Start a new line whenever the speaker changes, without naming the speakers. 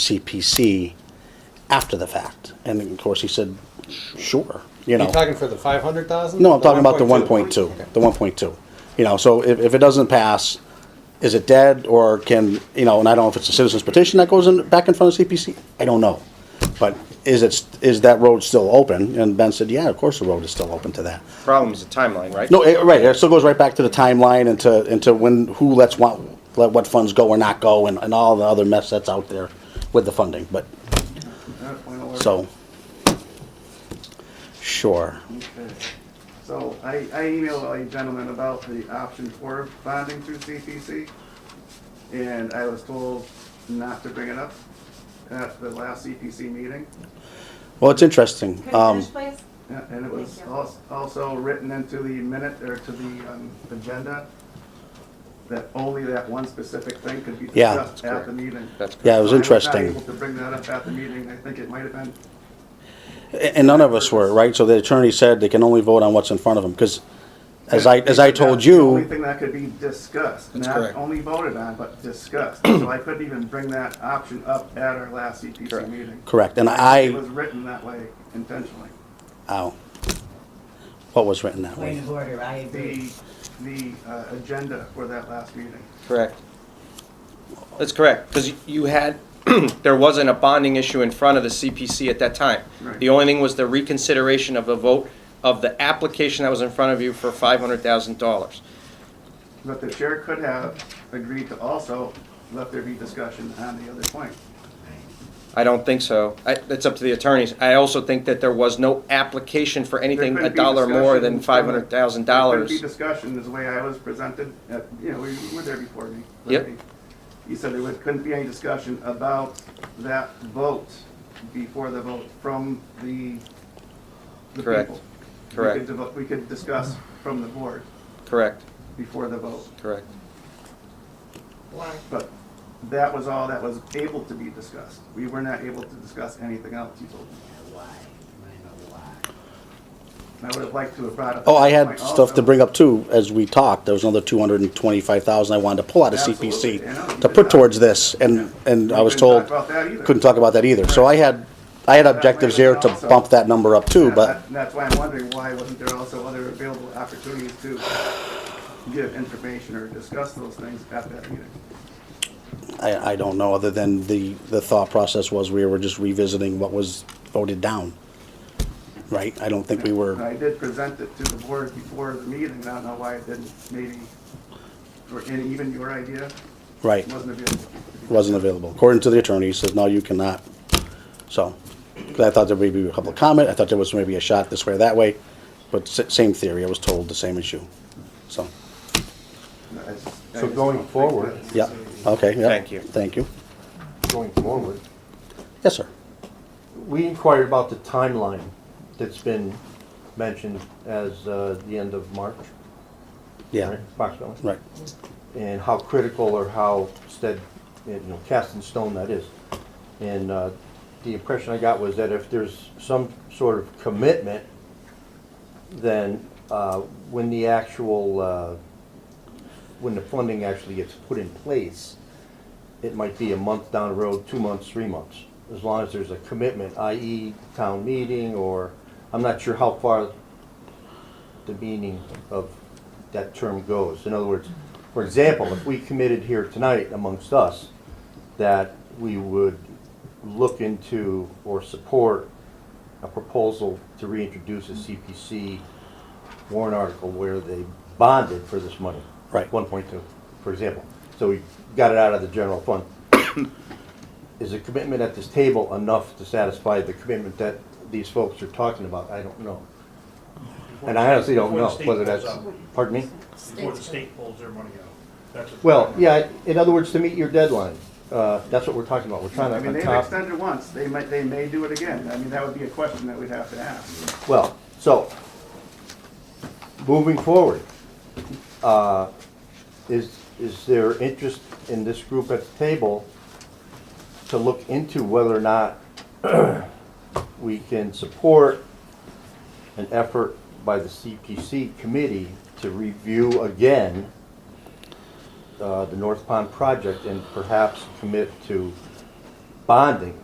CPC after the fact. And of course, he said, sure, you
Are
know.
you talking for the five hundred thousand?
No, I'm talking about the one point two, the one point two. You know, so if, if it doesn't pass, is it dead or can, you know, and I don't know if it's a citizen's petition that goes in, back in front of CPC, I don't know. But is it, is that road still open? And Ben said, yeah, of course the road is still open to that.
Problem is the timeline, right?
No, it, right, it still goes right back to the timeline and to, and to when, who lets what, let what funds go or not go and, and all the other mess that's out there with the funding, but, so. Sure,
Okay. So I, I emailed a gentleman about the option for bonding through CPC, and I was told not to bring it up at the last CPC meeting.
well, it's interesting,
Could you
um,
finish, please?
Yeah, And it was
Thank you.
als- also written into the minute, or to the um, agenda, that only that one specific thing could be
Yeah.
discussed at the meeting.
That's correct.
yeah, it was
So I not
interesting.
able to bring that up at the meeting, I think it might have been,
A- And none of us were, right? So the attorney said they can only vote on what's in front of them, because as I, as I told
That's The only
you,
thing that could be discussed,
That's
not
correct.
only voted on, but discussed. So I couldn't even bring that option up at our last CPC
Correct.
meeting.
correct, and
It
I,
was written that way intentionally.
ow. What was written that
Point
way?
of order, I agree.
The, the uh, agenda for that last meeting.
Correct. That's correct, because you had, there wasn't a bonding issue in front of the CPC at that time.
Right.
The only thing was the reconsideration of the vote of the application that was in front of you for five hundred thousand dollars.
But the chair could have agreed to also let there be discussion on the other point.
I don't think so. I, that's up to the attorneys. I also think that there was no application for
There
anything a
couldn't be
dollar more
discussion
than
from-
five hundred thousand
There couldn't
dollars.
be discussion, is the way I was presented, at- you know, we were there before me.
Yep.
You said there would- couldn't be any discussion about that vote before the vote from the, the
Correct.
people. We
Correct.
could devo- We could discuss from the board
Correct,
before the vote,
correct.
Why?
but that was all that was able to be discussed. We were not able to discuss anything else, you told me.
Why? I know why.
And I would have liked to have brought up.
Oh, I
that
had
point
stuff to
also.
bring up too, as we talked, there was another two hundred and twenty-five thousand I wanted to pull out of
Absolutely, I know, you
CPC to put
did that.
towards this, and, and
You
I was
couldn't
told,
talk about that either.
couldn't talk about that either, so I had, I had objectives here to bump that number up too,
Yeah,
but,
that- That's why I'm wondering why wasn't there also other available opportunities to give information or discuss those things at that meeting?
I, I don't know, other than the, the thought process was we were just revisiting what was voted down. Right? I don't think we
And
were,
I did present it to the board before the meeting, I don't know why it didn't, maybe, or any- even your idea
right,
wasn't available.
wasn't available. According to the attorney, he says, no, you cannot. So, 'cause I thought there may be a couple of comment, I thought there was maybe a shot this way or that way, but s- same theory, I was told the same issue. So,
I just- I
So
just
going
don't think
forward-
that's-
yeah, okay, yeah.
Thank you.
Thank you.
going forward.
Yes, sir.
We inquired about the timeline that's been mentioned as uh, the end of March.
Yeah,
right, Approximately.
right.
And how critical or how stead, you know, cast in stone that is. And uh, the impression I got was that if there's some sort of commitment, then uh, when the actual, uh, when the funding actually gets put in place, it might be a month down the road, two months, three months, as long as there's a commitment, i.e. town meeting or, I'm not sure how far the meaning of that term goes. In other words, for example, if we committed here tonight amongst us that we would look into or support a proposal to reintroduce a CPC warrant article where they bonded for this money.
Right.
One point two, for example. So we got it out of the general fund. Is a commitment at this table enough to satisfy the commitment that these folks are talking about? I don't know. And I honestly don't know whether that's, pardon me?
Before the state pulls their money out. That's what-
Well, yeah, in other words, to meet your deadline, uh, that's what we're talking about, we're
I
trying
mean,
to, on
they've
top,
extended once, they might, they may do it again, I mean, that would be a question that we'd have to ask.
well, so, moving forward, uh, is, is there interest in this group at the table to look into whether or not we can support an effort by the CPC committee to review again uh, the North Pond project and perhaps commit to bonding,